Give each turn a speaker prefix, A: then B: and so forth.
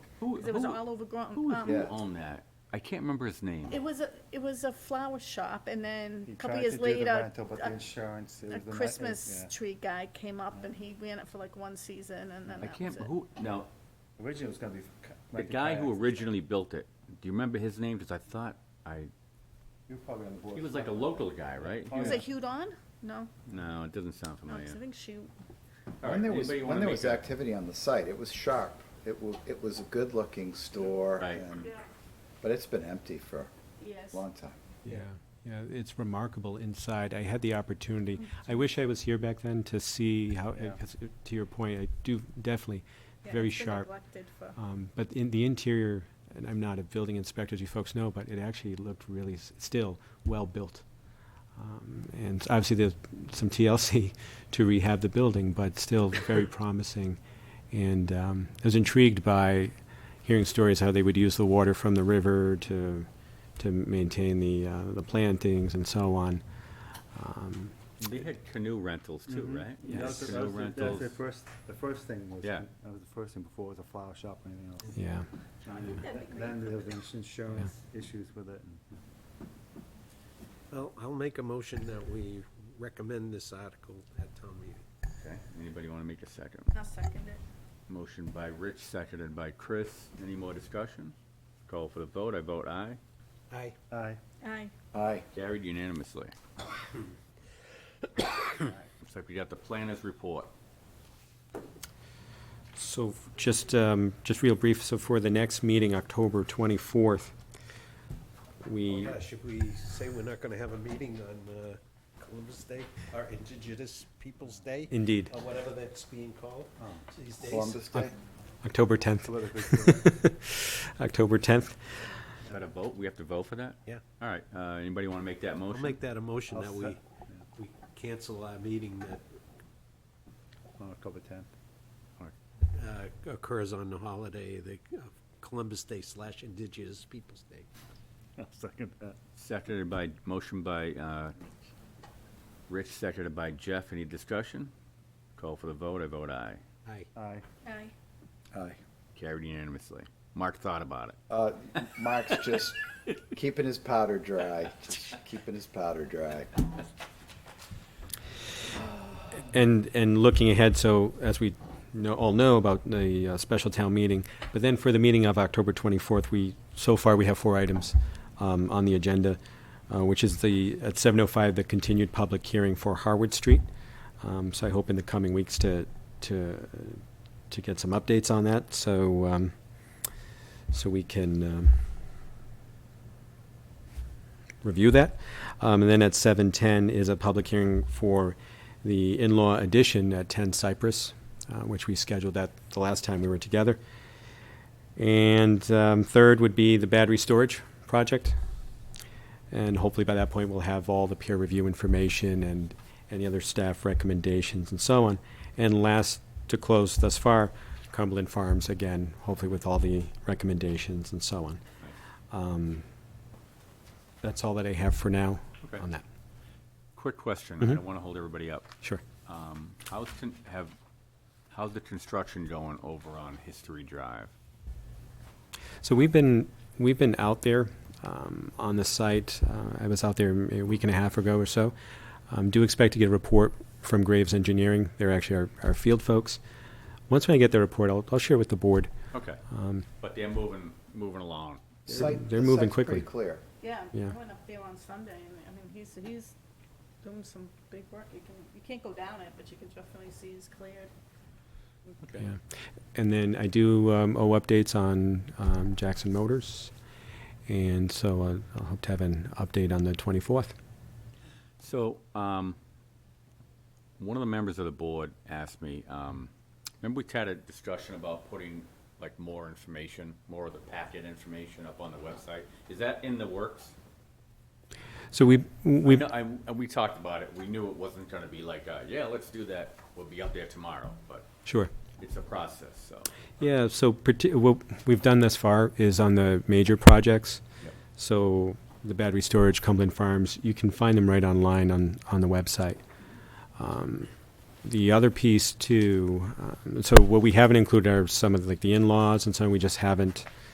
A: Who-
B: 'cause it was
A: who-
B: all over grown.
A: Who was
B: um,
A: who
C: Yeah.
A: owned that? I can't remember his name.
B: It was a, it was a flower shop and then
D: He
B: a couple
D: tried
B: years
D: to do the
B: later,
D: rental, But
B: a-
D: the insurance, it was
B: a
D: a nightmare,
B: Christmas
D: yeah.
B: tree guy came up and he ran it for like one season and then
A: I
B: that
A: can't,
B: was it.
A: who, now,
D: Originally, it was gonna be. for ca-
A: the
D: like a
A: guy who
D: kayak.
A: originally built it, do you remember his name? Because I thought I,
D: You were probably on the board.
A: he was like a local guy, right? He
D: Oh,
A: was-
B: Was
D: yeah.
B: it Hewed On? No,
A: No, it doesn't
E: Oh,
A: sound
B: no,
A: familiar.
B: 'cause I think she,
E: Hmm.
A: All
C: When
A: right,
C: there was,
A: anybody
C: when
A: wanna
C: there
A: make
C: was
A: a-
C: activity on the site, it was sharp. It wa, it was a good-looking store
A: Right.
C: and, but it's been empty for
B: yes.
C: a long time.
E: Yeah, yeah, it's remarkable inside. I had the opportunity. I wish I was here back then to see how,
D: Yeah.
E: because to your point, I do definitely,
B: Yeah,
E: very
B: it's been
E: sharp.
B: neglected for-
E: Um, But in the interior, and I'm not a building inspector, as you folks know, but it actually looked really s- still well-built. Um, And obviously, there's some TLC to rehab the building, but still very promising. And um, I was intrigued by hearing stories how they would use the water from the river to, to maintain the, uh, the plantings and so on. Um,
A: They had canoe rentals too,
D: Mhm.
A: right?
D: That was the- that
A: Canoe
D: was the- That's
A: rentals.
D: the first, the first thing was,
A: Yeah.
D: that was the first thing before it was a flower shop or anything else.
E: Yeah,
D: And
B: That'd be
D: Then there was ins- insurance issues with it. and-
F: Well, I'll make a motion that we recommend this article at town meeting.
A: Okay, anybody want to make a second?
B: I'll second it.
A: Motion by Rich, seconded by Chris. Any more discussion? Call for the vote, I vote aye.
F: Aye.
D: Aye.
B: Aye.
C: Aye.
A: Carried unanimously. Looks like we got the planners report.
E: so just, um, just real brief, so for the next meeting, October 24th, we,
F: Yeah, Uh, should we say we're not gonna have a meeting on uh, Columbus Day, or Indigenous Peoples' Day?
E: indeed,
F: Or whatever that's being called these days?
C: Columbus Day?
E: October 10th,
D: Politically correct.
E: October 10th.
A: Is that a vote? We have to vote for that?
F: Yeah.
A: All right, uh, anybody want to make that
F: I'll
A: motion?
F: make that a motion
D: I'll
F: that we,
D: sec-
F: we cancel our meeting that
D: on October tenth.
F: uh, occurs on the holiday, the uh, Columbus Day slash Indigenous Peoples' Day.
D: I'll second that.
A: Seconded by, motion by uh, Rich, seconded by Jeff. Any discussion? Call for the vote, I vote aye.
F: Aye.
D: Aye.
B: Aye.
C: Aye.
A: Carried unanimously. Mark thought about it.
C: Uh, Mark's just keeping his powder dry, just keeping his powder dry.
E: And, and looking ahead, so as we know, all know about the uh, special town meeting, but then for the meeting of October 24th, we, so far, we have four items um, on the agenda, uh, which is the, at 7:05, the continued public hearing for Harwood Street. Um, So I hope in the coming weeks to, to, to get some updates on that, so, um, so we can um, review that. Um, And then at 7:10 is a public hearing for the in-law addition at 10 Cypress, uh, which we scheduled that the last time we were together. And um, third would be the battery storage project. And hopefully by that point, we'll have all the peer review information and any other staff recommendations and so on. And last to close thus far, Cumberland Farms again, hopefully with all the recommendations and so on. Um, That's all that I have for now
A: Okay.
E: on that.
A: Quick question, I don't want to hold everybody up.
E: Sure.
A: Um, How's, con- have, how's the construction going over on History Drive?
E: So we've been we've been out there um, on the site. Uh, I was out there a week and a half ago or so. Um, do expect to get a report from Graves Engineering. They're actually our, our field folks. Once when I get their report, I'll, I'll share with the board.
A: Okay,
E: Um,
A: but they're moving, moving along.
C: Site-
E: they're
C: the
E: moving
C: site's pretty
E: quickly.
C: clear.
B: Yeah, I
E: Yeah.
B: went up there on Sunday and, I mean, he's, he's doing some big work. You can, you can't go down it, but you can definitely see he's cleared.
A: Okay.
E: yeah. And then I do um, owe updates on um, Jackson Motors, and so uh, I'll hope to have an update on the 24th.
A: So, um, one of the members of the board asked me, um, remember we had a discussion about putting like more information, more of the packet information up on the website? Is that in the works?
E: So we we
A: No, I, and we talked about it. We knew it wasn't gonna be like, uh, yeah, let's do that. We'll be up there tomorrow, but
E: sure.
A: it's a process, so.
E: Yeah, so parti- what we've done thus far is on the major projects.
A: Yep.
E: So the battery storage, Cumberland Farms, you can find them right online on, on the website. Um, The other um, piece too, uh, so what we haven't included are some of like the in-laws and so we just haven't